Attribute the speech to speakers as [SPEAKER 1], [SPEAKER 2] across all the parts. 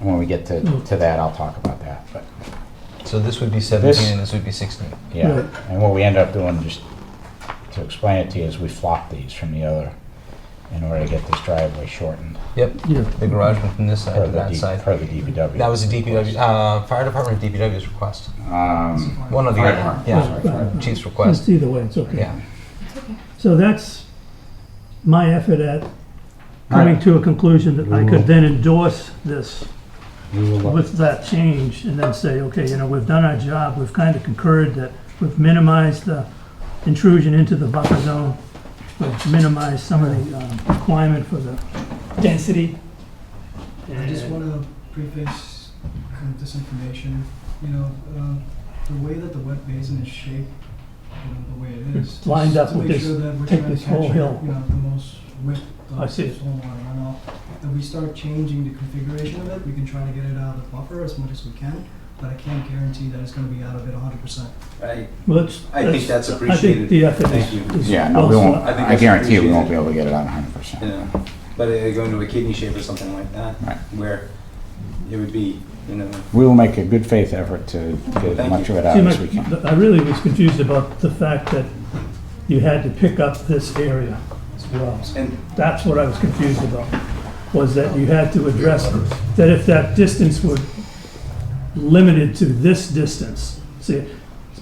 [SPEAKER 1] When we get to,
[SPEAKER 2] Hmm.
[SPEAKER 1] to that, I'll talk about that, but,
[SPEAKER 3] So this would be 17
[SPEAKER 1] This-
[SPEAKER 3] and this would be 16.
[SPEAKER 1] yeah.
[SPEAKER 2] Right.
[SPEAKER 1] And what we end up doing, just to explain it to you, is we flop these from the other in order to get this driveway shortened.
[SPEAKER 3] Yep,
[SPEAKER 2] Yeah,
[SPEAKER 3] the garage went from this
[SPEAKER 1] per
[SPEAKER 3] side to
[SPEAKER 1] the
[SPEAKER 3] that
[SPEAKER 1] D-
[SPEAKER 3] side.
[SPEAKER 1] Per the DPW.
[SPEAKER 3] That was a DPW, uh, fire department or DPW's request.
[SPEAKER 1] Um,
[SPEAKER 3] One of the
[SPEAKER 1] Fire
[SPEAKER 3] other,
[SPEAKER 1] department.
[SPEAKER 2] Sorry, fire
[SPEAKER 3] yeah,
[SPEAKER 2] department. Hmm.
[SPEAKER 3] chief's
[SPEAKER 2] just
[SPEAKER 3] request,
[SPEAKER 2] either way, it's okay.
[SPEAKER 3] yeah.
[SPEAKER 2] So that's my effort at coming to a conclusion that I could then endorse this
[SPEAKER 1] we will look-
[SPEAKER 2] with that change and then say, okay, you know, we've done our job, we've kind of concurred that we've minimized the intrusion into the buffer zone, we've minimized some of the um, requirement for the density.
[SPEAKER 4] I just
[SPEAKER 2] And-
[SPEAKER 4] want to preface kind of this information, you know, uh, the way that the wet basin is shaped, you know, the way it is.
[SPEAKER 2] It's lined up with this-
[SPEAKER 4] To make sure that we're
[SPEAKER 2] take
[SPEAKER 4] trying
[SPEAKER 2] this
[SPEAKER 4] to
[SPEAKER 2] whole
[SPEAKER 4] capture,
[SPEAKER 2] hill.
[SPEAKER 4] you know, the most width
[SPEAKER 2] I
[SPEAKER 4] of
[SPEAKER 2] see.
[SPEAKER 4] stormwater runoff. If we start changing the configuration of it, we can try to get it out of the buffer as much as we can, but I can't guarantee that it's gonna be out of it hundred percent.
[SPEAKER 5] I,
[SPEAKER 2] Let's-
[SPEAKER 5] I think that's
[SPEAKER 2] I think
[SPEAKER 5] appreciated.
[SPEAKER 2] the effort
[SPEAKER 5] Thank you.
[SPEAKER 2] is, is
[SPEAKER 1] Yeah, no,
[SPEAKER 2] well
[SPEAKER 1] we won't,
[SPEAKER 5] I think
[SPEAKER 1] I
[SPEAKER 5] that's
[SPEAKER 1] guarantee you we won't
[SPEAKER 5] appreciated.
[SPEAKER 1] be able to get it on hundred percent.
[SPEAKER 5] Yeah. But uh, going to a kidney shape or something like that,
[SPEAKER 1] Right.
[SPEAKER 5] where it would be, you know,
[SPEAKER 1] We will make a good faith effort to get as
[SPEAKER 5] Thank
[SPEAKER 1] much
[SPEAKER 5] you.
[SPEAKER 1] of it out
[SPEAKER 2] See,
[SPEAKER 1] as
[SPEAKER 2] my-
[SPEAKER 1] we can.
[SPEAKER 2] I really was confused about the fact that you had to pick up this area as well.
[SPEAKER 5] and
[SPEAKER 2] That's what I was confused about, was that you had to address, that if that distance were limited to this distance, see,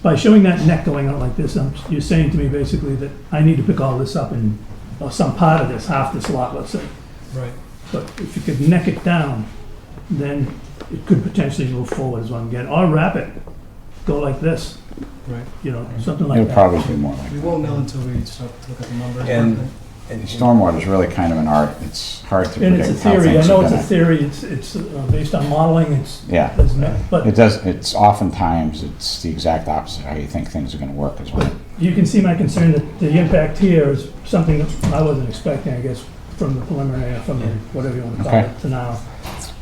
[SPEAKER 2] by showing that neck going out like this, I'm- you're saying to me basically that I need to pick all this up in, or some part of this, half this lot, let's say.
[SPEAKER 4] Right.
[SPEAKER 2] But if you could neck it down, then it could potentially move forward as one again, or wrap it, go like this.
[SPEAKER 4] Right.
[SPEAKER 2] You know, something like
[SPEAKER 1] It'll
[SPEAKER 2] that.
[SPEAKER 1] probably be more like,
[SPEAKER 4] We won't know until we start to look at the numbers.
[SPEAKER 5] And-
[SPEAKER 4] but-
[SPEAKER 5] and-
[SPEAKER 1] stormwater is really kind of an art. It's hard to
[SPEAKER 2] And it's a
[SPEAKER 1] predict how
[SPEAKER 2] theory, I
[SPEAKER 1] things
[SPEAKER 2] know
[SPEAKER 1] are
[SPEAKER 2] it's a
[SPEAKER 1] gonna.
[SPEAKER 2] theory, it's, it's uh, based on modeling, it's,
[SPEAKER 1] Yeah.
[SPEAKER 2] it's not- but
[SPEAKER 1] It does, it's oftentimes, it's the exact opposite, how you think things are gonna work as well.
[SPEAKER 2] you can see my concern that the impact here is something that I wasn't expecting, I guess, from the preliminary, or from the, whatever you want to call
[SPEAKER 1] Okay.
[SPEAKER 2] it, to now.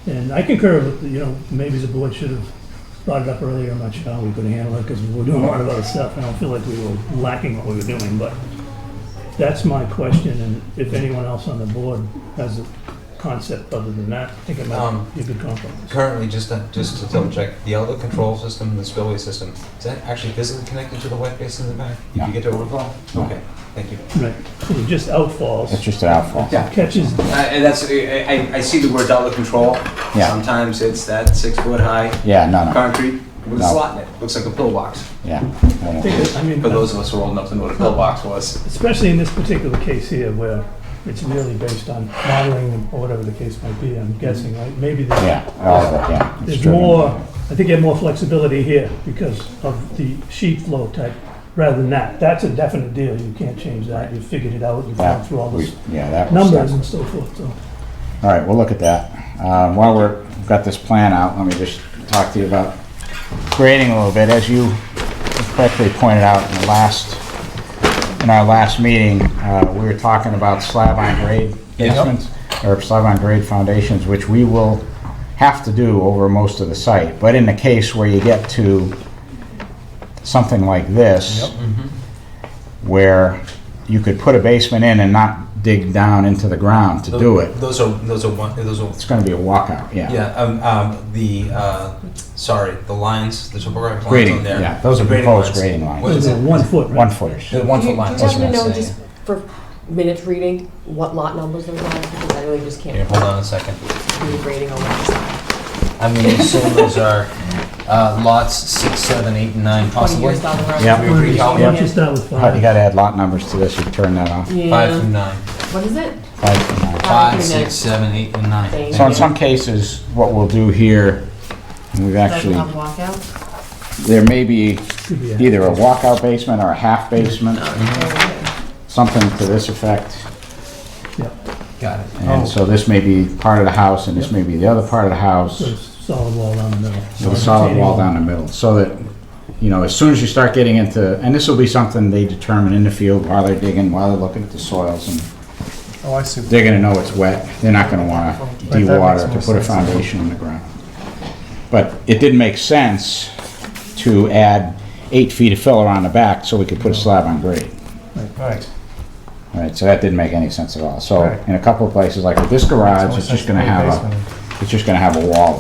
[SPEAKER 2] And I concur with, you know, maybe the board should have brought it up earlier, I'm not sure how we could handle it, because we were doing a lot of other stuff, and I don't feel like we were lacking what we were doing, but that's my question, and if anyone else on the board has a concept other than that, I think it might
[SPEAKER 3] Um,
[SPEAKER 2] be a good compromise.
[SPEAKER 3] Currently, just to, just to double check, the outlet control system and the spillway system, is that actually physically connected to the wet basin in the back? If
[SPEAKER 1] No.
[SPEAKER 3] you get to overflow?
[SPEAKER 1] No.
[SPEAKER 3] Okay, thank you.
[SPEAKER 2] Right, so you just
[SPEAKER 1] It's
[SPEAKER 2] outfalls,
[SPEAKER 1] just an outfall.
[SPEAKER 5] Yeah.
[SPEAKER 2] catches,
[SPEAKER 5] Uh, and that's, I, I, I see the word outlet control.
[SPEAKER 1] Yeah.
[SPEAKER 5] Sometimes it's that six foot high
[SPEAKER 1] Yeah, no, no,
[SPEAKER 5] concrete with a
[SPEAKER 1] No.
[SPEAKER 5] slot in it. Looks like a pillbox.
[SPEAKER 1] yeah. I
[SPEAKER 2] I
[SPEAKER 1] won't-
[SPEAKER 2] think that- I mean.
[SPEAKER 5] For those of us who are old enough to know what a pillbox was.
[SPEAKER 2] especially in this particular case here where it's really based on modeling or whatever the case might be, I'm guessing, right? Maybe there's,
[SPEAKER 1] Mm-hmm. Yeah, all of it, yeah. It's
[SPEAKER 2] there's
[SPEAKER 1] driven.
[SPEAKER 2] more, I think you have more flexibility here because of the sheet flow type rather than that. That's a definite deal, you can't change that, you figured it out, you've gone
[SPEAKER 1] That,
[SPEAKER 2] through all
[SPEAKER 1] we,
[SPEAKER 2] those
[SPEAKER 1] yeah, that was.
[SPEAKER 2] numbers and so forth, so.
[SPEAKER 1] All right, we'll look at that. Uh, While we're, we've got this plan out, let me just talk to you about grading a little bit. As you correctly pointed out in the last, in our last meeting, uh, we were talking about slab on grade
[SPEAKER 3] Yeah.
[SPEAKER 1] basements, or slab on grade foundations, which we will have to do over most of the site. But in the case where you get to something like this, where you could put a basement in and not dig down into the ground to do it,
[SPEAKER 3] Those are, those are one, those are,
[SPEAKER 1] it's gonna be a walkout, yeah.
[SPEAKER 3] yeah, um, um, the, uh, sorry, the lines, the topographic lines
[SPEAKER 1] Grading,
[SPEAKER 3] on there.
[SPEAKER 1] yeah, those are
[SPEAKER 3] the
[SPEAKER 1] proposed grading lines.
[SPEAKER 3] What is
[SPEAKER 2] It's a
[SPEAKER 3] it?
[SPEAKER 2] One foot,
[SPEAKER 1] One
[SPEAKER 2] right?
[SPEAKER 1] footers.
[SPEAKER 3] The one
[SPEAKER 6] Do you-
[SPEAKER 3] foot lines.
[SPEAKER 6] Do you happen
[SPEAKER 1] that's
[SPEAKER 6] to
[SPEAKER 1] what
[SPEAKER 6] know
[SPEAKER 1] I'm
[SPEAKER 6] just for minutes reading what lot numbers those are? Because I really just
[SPEAKER 3] Here,
[SPEAKER 6] can't
[SPEAKER 3] hold on a second.
[SPEAKER 6] do the grading on that.
[SPEAKER 3] I'm gonna assume those are, uh, lots six, seven, eight, and nine
[SPEAKER 6] Twenty
[SPEAKER 3] possibly.
[SPEAKER 6] years down the road.
[SPEAKER 1] Yep.
[SPEAKER 3] We agree, Calvin.
[SPEAKER 2] Why don't you start with
[SPEAKER 1] Alright, You
[SPEAKER 2] five?
[SPEAKER 1] gotta add lot numbers to this, you can turn that off.
[SPEAKER 3] Five through
[SPEAKER 6] Yeah.
[SPEAKER 3] nine.
[SPEAKER 6] What is it?
[SPEAKER 1] Five for nine.
[SPEAKER 3] Five,
[SPEAKER 6] through
[SPEAKER 3] six, seven, eight, and nine.
[SPEAKER 6] Thank
[SPEAKER 1] So in some cases, what we'll do here, and we've
[SPEAKER 6] nine. Doesn't
[SPEAKER 1] actually,
[SPEAKER 6] have walkout?
[SPEAKER 1] there may be
[SPEAKER 2] Could be a-
[SPEAKER 1] either a walkout basement or a half basement, something to this effect.
[SPEAKER 2] yeah,
[SPEAKER 3] Got it.
[SPEAKER 1] And so this may be part of the house, and this may be the other part of the house,
[SPEAKER 2] So it's solid wall down the middle.
[SPEAKER 1] with a solid wall down the middle, so that, you know, as soon as you start getting into, and this will be something they determine in the field while they're digging, while they're looking at the soils and
[SPEAKER 7] Oh, I see.
[SPEAKER 1] they're gonna know it's wet, they're not gonna wanna
[SPEAKER 7] that makes
[SPEAKER 1] de-water to
[SPEAKER 7] more
[SPEAKER 1] put a
[SPEAKER 7] sense.
[SPEAKER 1] foundation in the ground. But it didn't make sense to add eight feet of filler on the back so we could put a slab on grade.
[SPEAKER 7] Right.
[SPEAKER 1] All right, so that didn't make any sense at all. So
[SPEAKER 7] Right.
[SPEAKER 1] Uh, in a couple of places, like with this garage, it's just gonna have a, it's just gonna have a wall